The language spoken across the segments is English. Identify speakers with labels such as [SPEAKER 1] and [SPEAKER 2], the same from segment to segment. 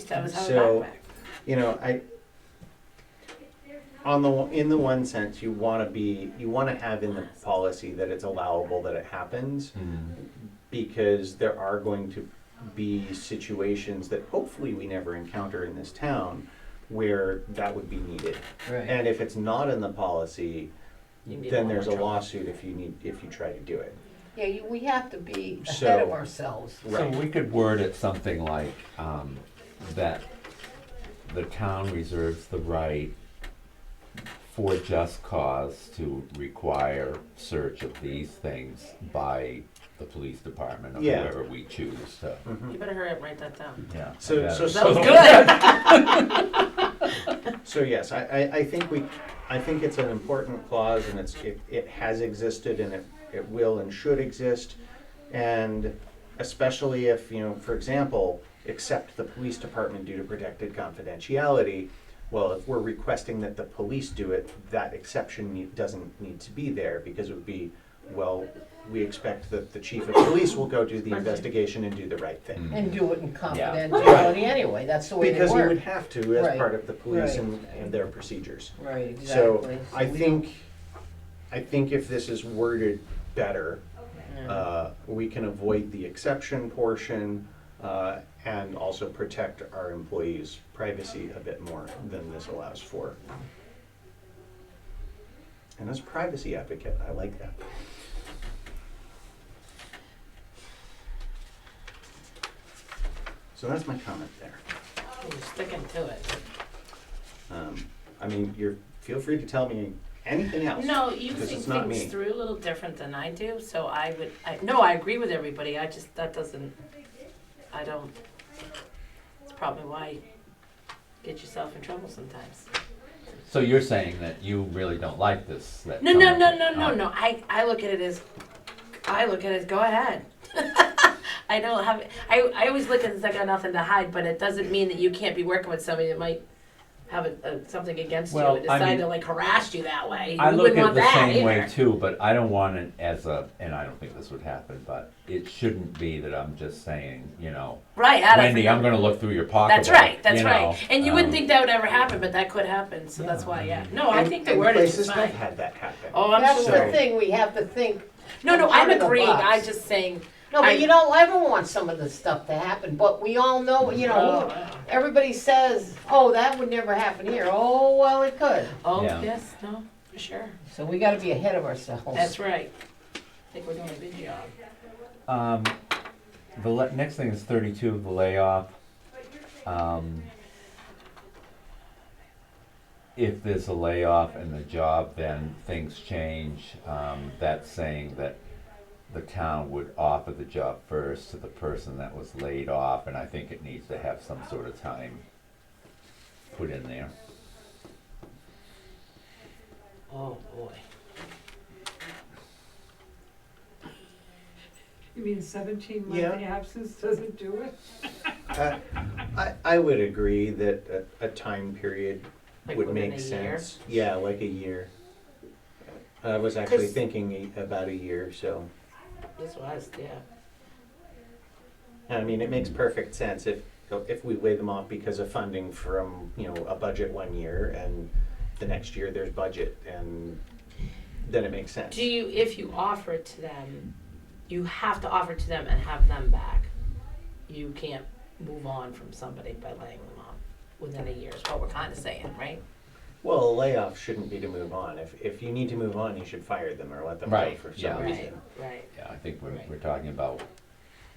[SPEAKER 1] That was
[SPEAKER 2] So- you know, I on the in the one sense you want to be you want to have in the policy that it's allowable that it happens
[SPEAKER 3] Mm-hmm.
[SPEAKER 2] because there are going to be situations that hopefully we never encounter in this town where that would be needed.
[SPEAKER 3] Right.
[SPEAKER 2] And if it's not in the policy,
[SPEAKER 3] You can get
[SPEAKER 2] then
[SPEAKER 3] more
[SPEAKER 2] there's a
[SPEAKER 3] trouble.
[SPEAKER 2] lawsuit if you need if you try to do it.
[SPEAKER 1] Yeah, you, we have to be ahead
[SPEAKER 2] So-
[SPEAKER 1] of ourselves.
[SPEAKER 4] So
[SPEAKER 2] Right.
[SPEAKER 4] we could word it something like, um, that the town reserves the right for just cause to require search of these things by the police department or
[SPEAKER 2] Yeah. Mm-hmm.
[SPEAKER 4] whoever we choose to.
[SPEAKER 3] You better hurry up and write that down.
[SPEAKER 4] Yeah.
[SPEAKER 2] hmm. So so
[SPEAKER 3] That was
[SPEAKER 2] so-
[SPEAKER 3] good.
[SPEAKER 2] So yes, I, I, I think we, I think it's an important clause and it's, it, it has existed and it, it will and should exist. And especially if, you know, for example, except the police department due to protected confidentiality, well, if we're requesting that the police do it, that exception need- doesn't need to be there because it would be, well, we expect that the chief of police will go do the investigation and do the right thing.
[SPEAKER 1] And do it in
[SPEAKER 4] Yeah.
[SPEAKER 1] confidentiality anyway, that's the way they
[SPEAKER 2] Because we would
[SPEAKER 1] work.
[SPEAKER 2] have to as
[SPEAKER 1] Right.
[SPEAKER 2] part of the police
[SPEAKER 1] Right.
[SPEAKER 2] and, and their procedures.
[SPEAKER 1] Right, exactly.
[SPEAKER 2] So I think, I think if this is worded better, uh, we can avoid the exception portion uh, and also protect our employees' privacy a bit more than this allows for. And as a privacy advocate, I like that. So that's my comment there.
[SPEAKER 3] You're sticking to it.
[SPEAKER 2] Um, I mean, you're, feel free to tell me anything else.
[SPEAKER 3] No, you
[SPEAKER 2] Because
[SPEAKER 3] think
[SPEAKER 2] it's not
[SPEAKER 3] things
[SPEAKER 2] me.
[SPEAKER 3] through a little different than I do, so I would, I, no, I agree with everybody, I just, that doesn't, I don't, it's probably why you get yourself in trouble sometimes.
[SPEAKER 4] So you're saying that you really don't like this? that
[SPEAKER 3] No, no,
[SPEAKER 4] someone-
[SPEAKER 3] no, no, no,
[SPEAKER 4] Oh.
[SPEAKER 3] no, I, I look at it as, I look at it as, go ahead. I don't have, I, I always look at it as I got nothing to hide, but it doesn't mean that you can't be working with somebody that might have a, a, something against you
[SPEAKER 4] Well,
[SPEAKER 3] and
[SPEAKER 4] I
[SPEAKER 3] decide
[SPEAKER 4] mean-
[SPEAKER 3] to like harass you that way.
[SPEAKER 4] I
[SPEAKER 3] We
[SPEAKER 4] look
[SPEAKER 3] wouldn't
[SPEAKER 4] at
[SPEAKER 3] want
[SPEAKER 4] the
[SPEAKER 3] that
[SPEAKER 4] same way
[SPEAKER 3] either.
[SPEAKER 4] too, but I don't want it as a, and I don't think this would happen, but it shouldn't be that I'm just saying, you know,
[SPEAKER 3] Right, out of.
[SPEAKER 4] Wendy, I'm going to look through your pocketbook.
[SPEAKER 3] That's right. That's
[SPEAKER 4] you know,
[SPEAKER 3] right. And you wouldn't
[SPEAKER 4] um,
[SPEAKER 3] think that would ever happen, but that could happen. So that's why, yeah. No, Oh, I
[SPEAKER 2] And-
[SPEAKER 3] think the
[SPEAKER 2] and
[SPEAKER 3] word is
[SPEAKER 2] places
[SPEAKER 3] just fine.
[SPEAKER 2] have had that happen.
[SPEAKER 3] Oh, I'm
[SPEAKER 1] That's the
[SPEAKER 3] sure.
[SPEAKER 2] Absolutely.
[SPEAKER 1] thing, we have to think,
[SPEAKER 3] No, no, I'm
[SPEAKER 1] Out of the
[SPEAKER 3] agreeing.
[SPEAKER 1] box.
[SPEAKER 3] I'm just saying.
[SPEAKER 1] no,
[SPEAKER 3] I-
[SPEAKER 1] but you don't ever want some of this stuff to happen, but we all know, you know,
[SPEAKER 3] Oh,
[SPEAKER 1] everybody says, oh, that would never happen here, oh, well, it could.
[SPEAKER 3] oh
[SPEAKER 4] Yeah.
[SPEAKER 3] yes, no, for sure.
[SPEAKER 1] So we gotta be ahead of ourselves.
[SPEAKER 3] That's right. I think we're doing a good job.
[SPEAKER 4] Um, the le- next thing is thirty-two, the layoff. Um, if there's a layoff in the job, then things change. Um, that's saying that the town would offer the job first to the person that was laid off, and I think it needs to have some sort of time put in there.
[SPEAKER 3] Oh boy.
[SPEAKER 5] You mean seventeen month
[SPEAKER 2] Yeah.
[SPEAKER 5] absence doesn't do it?
[SPEAKER 2] Uh, I, I would agree that a, a time period
[SPEAKER 3] Like
[SPEAKER 2] would
[SPEAKER 3] within
[SPEAKER 2] make
[SPEAKER 3] a year?
[SPEAKER 2] sense. Yeah, like a year. I was actually
[SPEAKER 3] 'Cause-
[SPEAKER 2] thinking a- about a year, so,
[SPEAKER 3] This was yeah.
[SPEAKER 2] I mean, it makes perfect sense if, if we weigh them off because of funding from, you know, a budget one year and the next year there's budget and then it makes sense.
[SPEAKER 3] Do you if you offer it to them, you have to offer it to them and have them back. You can't move on from somebody by laying them off within a year is what we're kinda saying, right?
[SPEAKER 2] Well, a layoff shouldn't be to move on. If, if you need to move on, you should fire them or let them go
[SPEAKER 4] Right,
[SPEAKER 2] for
[SPEAKER 4] yeah.
[SPEAKER 2] some
[SPEAKER 4] Right.
[SPEAKER 2] reason.
[SPEAKER 3] Right.
[SPEAKER 4] Yeah, I think we're,
[SPEAKER 3] Right.
[SPEAKER 4] we're talking about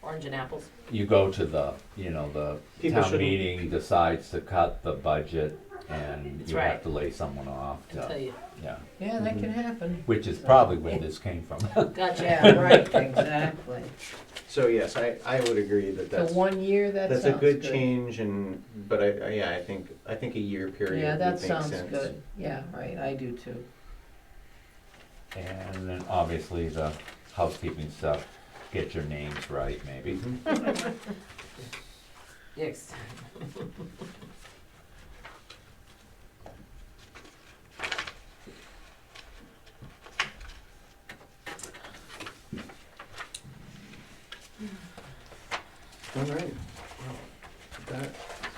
[SPEAKER 3] Orange and apples.
[SPEAKER 4] you go to the, you know, the
[SPEAKER 2] People
[SPEAKER 4] town
[SPEAKER 2] shouldn't-
[SPEAKER 4] meeting decides to cut the budget and
[SPEAKER 3] That's
[SPEAKER 4] you
[SPEAKER 3] right.
[SPEAKER 4] have to lay someone off.
[SPEAKER 3] I'll tell
[SPEAKER 4] to-
[SPEAKER 3] you.
[SPEAKER 4] Yeah,
[SPEAKER 1] Yeah, that
[SPEAKER 2] Mm-hmm.
[SPEAKER 1] can happen.
[SPEAKER 4] which is probably where this came from.
[SPEAKER 3] Gotcha.
[SPEAKER 1] Yeah, right, exactly.
[SPEAKER 2] So yes, I, I would agree that
[SPEAKER 1] So
[SPEAKER 2] that's.
[SPEAKER 1] one year, that sounds
[SPEAKER 2] That's
[SPEAKER 1] good.
[SPEAKER 2] a good change and, but I, I- yeah, I think, I think a year period
[SPEAKER 1] Yeah,
[SPEAKER 2] would
[SPEAKER 1] that
[SPEAKER 2] make sense.
[SPEAKER 1] sounds good, yeah, right, I do too.
[SPEAKER 4] And then obviously the housekeeping stuff, get your
[SPEAKER 2] Mm-hmm.
[SPEAKER 4] names right maybe.
[SPEAKER 2] Mhm.
[SPEAKER 3] Yes.